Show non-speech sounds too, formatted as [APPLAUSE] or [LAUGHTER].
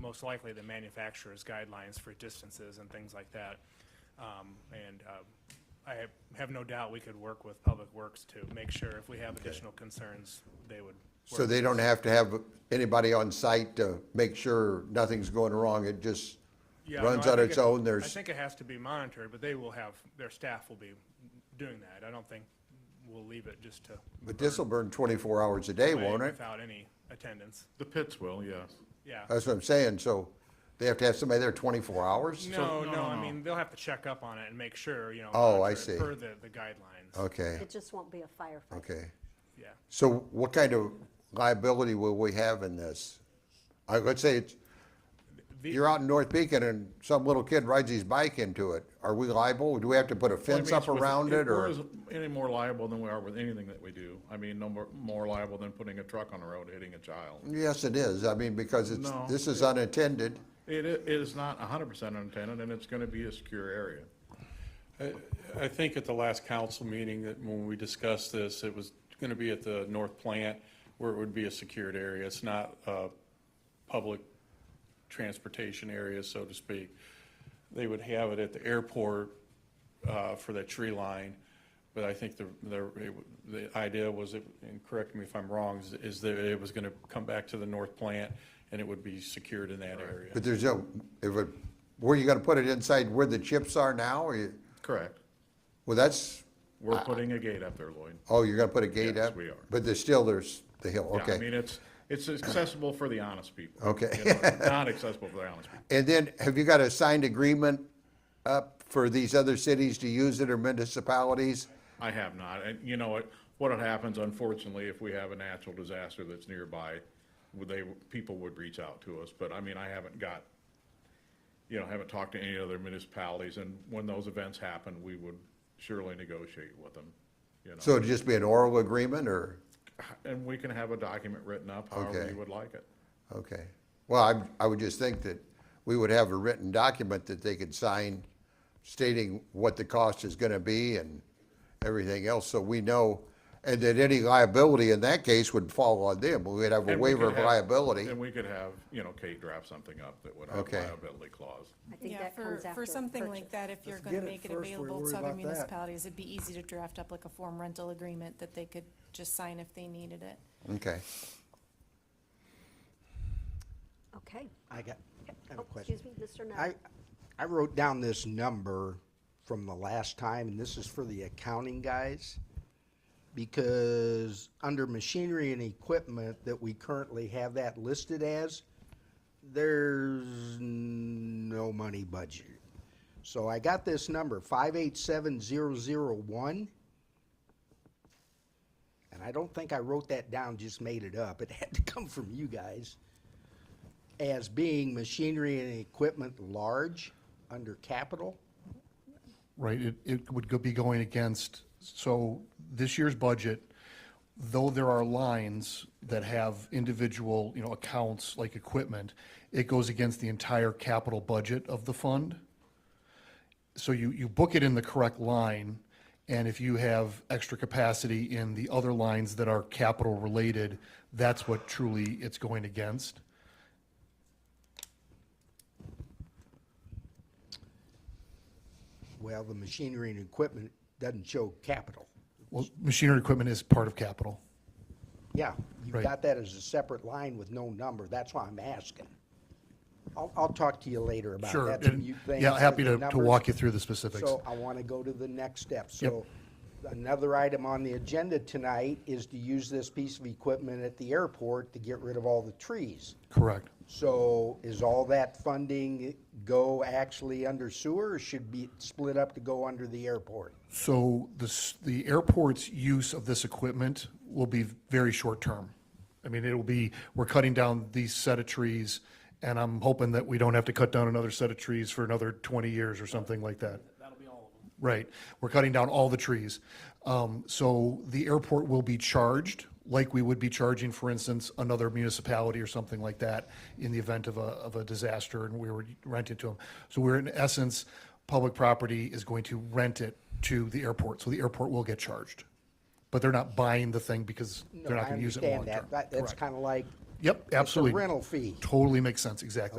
most likely the manufacturer's guidelines for distances and things like that. Um, And uh, I have- have no doubt we could work with Public Works to make sure if we have additional concerns, they would. So they don't have to have anybody on site to make sure nothing's going wrong, it just Yeah, runs no, I on think its it- own, I there's, think it has to be monitored, but they will have, their staff will be doing that. I don't think we'll leave it just to. but this'll burn twenty-four hours a day, play won't it? Without any attendance, The pits will, yes. yeah. That's what I'm saying, so they have to have somebody there twenty-four hours? No, no, no, no, I no. mean, they'll have to check up on it and make sure, you know. Oh, I monitor it see. Per the, the guidelines, Okay, It just won't be a firefight. okay. yeah. So what kind of liability will we have in this? I, let's say it's, The- you're out in North Beacon and some little kid rides his bike into it. Are we liable? Do we have to put a Well, I fence mean, up it's with- around it or? we're as- Any more liable than we are with anything that we do. I mean, no more, more liable than putting a truck on the road hitting a child. Yes, it is. I mean, because it's, No. this is unattended. It, i- it is not hundred percent unattended and it's gonna be a secure area. I think at the last council meeting that when we discussed this, it was going to be at the north plant where it would be a secured area. It's not a public transportation area, so to speak. They would have it at the airport uh, for that tree line. But I think the, the, it- the idea was, it- and correct me if I'm wrong, is- is that it was going to come back to the north plant and it would be secured in that area. But there's no, if it, where you gonna put it inside where the chips are now? Or you, Correct. well, that's, Uh, We're putting a gate up there, Lloyd. oh, you're gonna put a gate Yes, up? we are. But there's still, there's the hill, Yeah, I okay. mean, it's, it's accessible for the honest people. Okay. You know, [LAUGHS] Not accessible for the honest people. And then, have you got a signed agreement up for these other cities to use it or municipalities? I have not, and you know what, what happens unfortunately, if we have a natural disaster that's nearby, would they, people would reach out to us, but I mean, I haven't got, you know, haven't talked to any other municipalities, and when those events happen, we would surely negotiate with them, you So know, it'd just be an oral agreement or, and we can have a document written up however Okay. you would like it. okay. Well, I, I would just think that we would have a written document that they could sign stating what the cost is gonna be and everything else, so we know. And that any liability in that case would fall on them. We'd have a And we waiver could of have- liability. And we could have, you know, Kate draft something up that would have Okay. liability clause. I think Yeah, that comes for, after. for something purchase. like that, if you're Let's gonna get it make it first, we available worry to other about that. municipalities, it'd be easy to draft up like a form rental agreement that they could just sign if they needed it. Okay. Okay. I got, I have Oh, a question. Excuse me, Mr. I, Nutt. I wrote down this number from the last time, and this is for the accounting guys. Because under machinery and equipment that we currently have that listed as, there's no money budget. So I got this number, five eight seven zero zero one. And I don't think I wrote that down, just made it up. It had to come from you guys as being machinery and equipment large under capital? Right, it, it would go- be going against, so this year's budget, though there are lines that have individual, you know, accounts like equipment, it goes against the entire capital budget of the fund. So you, you book it in the correct line, and if you have extra capacity in the other lines that are capital related, that's what truly it's going against. Well, the machinery and equipment doesn't show capital. Well, machinery equipment is part of capital. Yeah, you've Right. got that as a separate line with no number, that's why I'm asking. I'll, I'll talk to you later about Sure, that. some and- new things yeah, with happy the to, to numbers. walk you through the specifics. So I want to go to the next step. So another item on the agenda tonight is to use this piece of equipment at the airport to get rid of all the trees. Correct. So is all that funding go actually under sewer or should be split up to go under the airport? So the, s- the airport's use of this equipment will be very short-term. I mean, it'll be, we're cutting down these set of trees, and I'm hoping that we don't have to cut down another set of trees for another 20 years or something like that. That'll be all of them. Right. We're cutting down all the trees. Um, So the airport will be charged, like we would be charging, for instance, another municipality or something like that in the event of a, of a disaster and we were renting to them. So we're in essence, public property is going to rent it to the airport, so the airport will get charged. But they're not buying the thing because No, they're not I gonna use it understand long term. that. That- That's Correct. kind of like. Yep, absolutely. It's a rental fee. Totally makes sense, exactly.